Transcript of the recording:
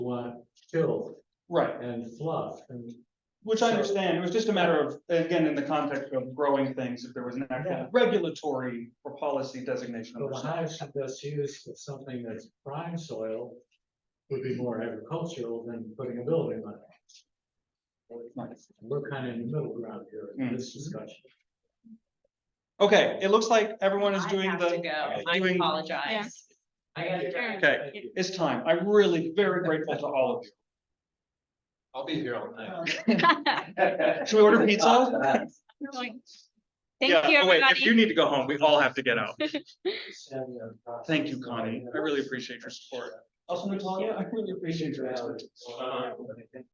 want chill Right, and fluff and. which I understand, it was just a matter of, again, in the context of growing things, if there was an Yeah. actual regulatory or policy designation. So of the percent. hive should best use with something that's prime soil would be more agricultural than putting a building on it. We're kind of in the middle ground here in Mm. this discussion. Okay, it looks like everyone is I doing have to the, go. I doing- apologize. I gotta drive. Okay. it's time, I'm really very grateful to all of you. I'll be here all night. Oh. Should we order pizza? Thank you, Yeah, oh wait, If you everybody. need to go home, we all have to get out. Thank Thank you, Connie, I really appreciate your support. Also, Natalia, I really appreciate your efforts.